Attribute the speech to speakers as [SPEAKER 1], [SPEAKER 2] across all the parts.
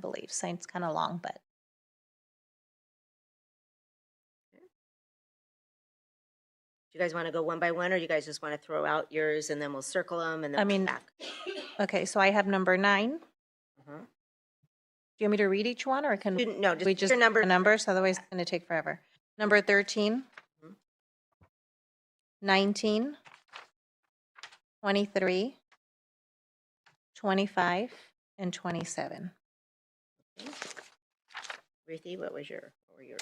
[SPEAKER 1] brief, so it's kind of long, but.
[SPEAKER 2] Do you guys want to go one by one, or you guys just want to throw out yours and then we'll circle them and then
[SPEAKER 1] I
[SPEAKER 2] come
[SPEAKER 1] mean-
[SPEAKER 2] back?
[SPEAKER 1] Okay, so I have number nine. Do
[SPEAKER 2] Mhm.
[SPEAKER 1] you want me to read each one or can
[SPEAKER 2] Student- No,
[SPEAKER 1] we
[SPEAKER 2] just
[SPEAKER 1] just
[SPEAKER 2] your
[SPEAKER 1] number
[SPEAKER 2] number.
[SPEAKER 1] numbers? Otherwise it's going to take forever. Number 13,
[SPEAKER 2] Mhm.
[SPEAKER 1] 19, 23, 25, and 27.
[SPEAKER 2] Ruthie, what was your, what were your?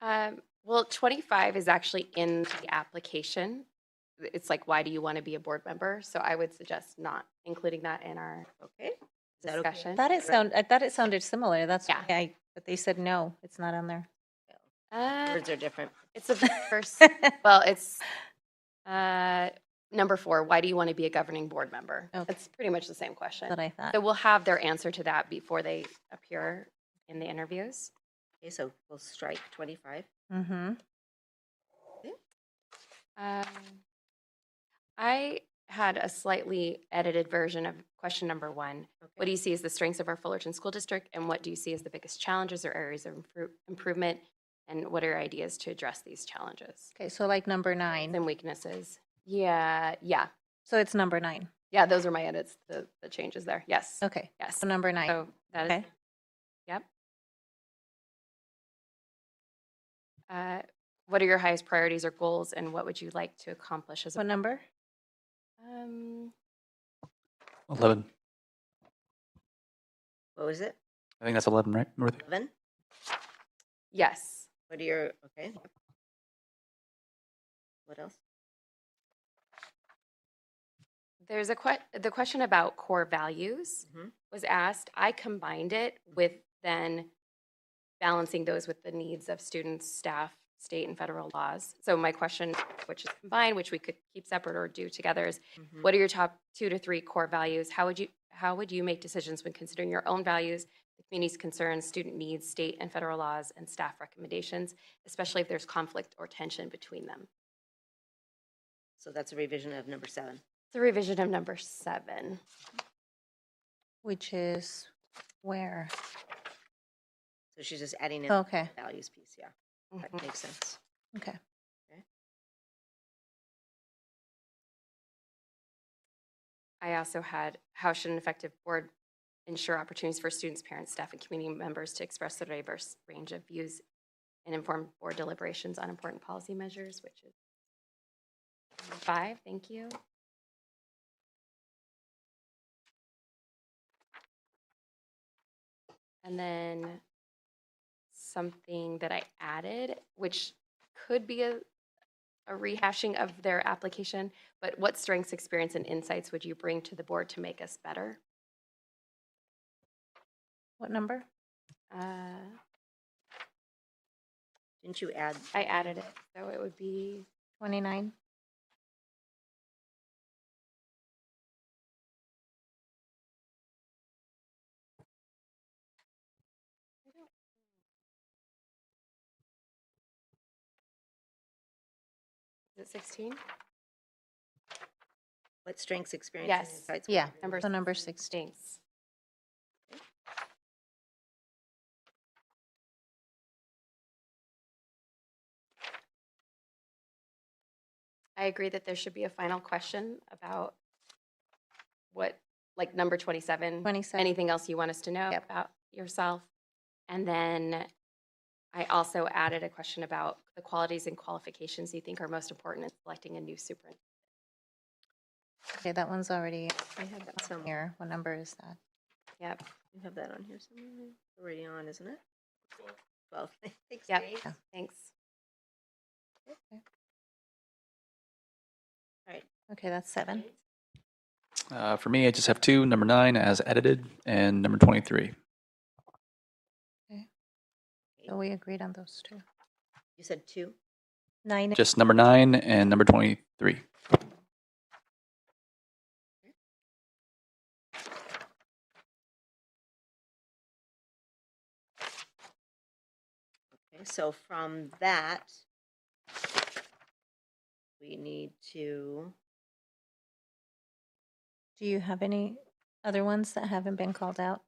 [SPEAKER 3] Um, well, 25 is actually in the application. It's like, why do you want to be a board member? So I would suggest not including that in our
[SPEAKER 2] Okay. Is that okay?
[SPEAKER 3] discussion.
[SPEAKER 1] That it sound, I thought it sounded similar. That's
[SPEAKER 3] Yeah.
[SPEAKER 1] why I, but they said no, it's not on there.
[SPEAKER 3] Uh,
[SPEAKER 2] Words are different.
[SPEAKER 3] it's a verse. well, it's uh, number four. Why do you want to be a governing board member?
[SPEAKER 1] Okay.
[SPEAKER 3] It's pretty much the same question.
[SPEAKER 1] That I thought.
[SPEAKER 3] So we'll have their answer to that before they appear in the interviews.
[SPEAKER 2] Okay, so we'll strike 25.
[SPEAKER 1] Mm-hmm.
[SPEAKER 3] Um, I had a slightly edited version of question number one. What do you see as the strengths of our Fullerton School District, and what do you see as the biggest challenges or areas of impro- improvement? And what are your ideas to address these challenges
[SPEAKER 1] Okay, so like number nine.
[SPEAKER 3] and weaknesses? Yeah, yeah,
[SPEAKER 1] So it's number nine.
[SPEAKER 3] yeah. Those are my edits. The, the changes there. Yes,
[SPEAKER 1] Okay,
[SPEAKER 3] yes.
[SPEAKER 1] so number nine.
[SPEAKER 3] So that is.
[SPEAKER 1] Okay.
[SPEAKER 3] Yep. Uh, what are your highest priorities or goals, and what would you like to accomplish as a
[SPEAKER 1] What number?
[SPEAKER 3] Um,
[SPEAKER 4] 11.
[SPEAKER 2] What was it?
[SPEAKER 4] I think that's 11, right, Ruthie?
[SPEAKER 2] 11?
[SPEAKER 3] yes.
[SPEAKER 2] What are your, okay. What else?
[SPEAKER 3] There's a que- the question about core values
[SPEAKER 2] Mhm.
[SPEAKER 3] was asked. I combined it with then balancing those with the needs of students, staff, state and federal laws. So my question, which is combined, which we could keep separate or do together, is
[SPEAKER 2] Mhm.
[SPEAKER 3] what are your top two to three core values? How would you how would you make decisions when considering your own values, the community's concerns, student needs, state and federal laws, and staff recommendations, especially if there's conflict or tension between them?
[SPEAKER 2] So that's a revision of number seven.
[SPEAKER 3] The revision of number seven.
[SPEAKER 1] Which is where? Oh,
[SPEAKER 2] So she's just adding in
[SPEAKER 3] Oh.
[SPEAKER 2] the
[SPEAKER 1] Okay,
[SPEAKER 2] values piece, yeah. That
[SPEAKER 3] Mhm.
[SPEAKER 2] makes sense.
[SPEAKER 1] okay.
[SPEAKER 3] I also had, how should an effective board ensure opportunities for students, parents, staff, and community members to express their diverse range of views and inform board deliberations on important policy measures, which is number five, thank you. And then something that I added, which could be a, a rehashing of their application, but what strengths, experience, and insights would you bring to the board to make us better?
[SPEAKER 1] What number?
[SPEAKER 3] Uh,
[SPEAKER 2] Didn't you add,
[SPEAKER 3] I added it, so it would be,
[SPEAKER 1] 29?
[SPEAKER 3] is it 16?
[SPEAKER 2] what strengths, experience?
[SPEAKER 3] Yes.
[SPEAKER 2] Insights?
[SPEAKER 1] Yeah,
[SPEAKER 3] Number
[SPEAKER 1] so number 16.
[SPEAKER 3] Stinks. I agree that there should be a final question about what, like number 27.
[SPEAKER 1] 27,
[SPEAKER 3] anything else you want us to know
[SPEAKER 1] Yep.
[SPEAKER 3] about yourself. And then I also added a question about the qualities and qualifications you think are most important in selecting a new superintendent.
[SPEAKER 1] okay, that one's already
[SPEAKER 2] I have that
[SPEAKER 1] on
[SPEAKER 2] somewhere.
[SPEAKER 1] here. What number is that?
[SPEAKER 3] Yep.
[SPEAKER 2] You have that on here somewhere? It's Already on, isn't it? Twelve. Thanks,
[SPEAKER 3] Yep.
[SPEAKER 2] Dave.
[SPEAKER 1] Yeah.
[SPEAKER 2] All
[SPEAKER 3] Thanks.
[SPEAKER 2] right.
[SPEAKER 1] Okay, that's seven.
[SPEAKER 4] Uh, for me, I just have two number nine as edited, and number 23.
[SPEAKER 1] So we agreed on those two.
[SPEAKER 2] You said two?
[SPEAKER 1] Nine,
[SPEAKER 4] Just number nine and number 23.
[SPEAKER 2] Okay, so from that, we need to,
[SPEAKER 1] do you have any other ones that haven't been called out?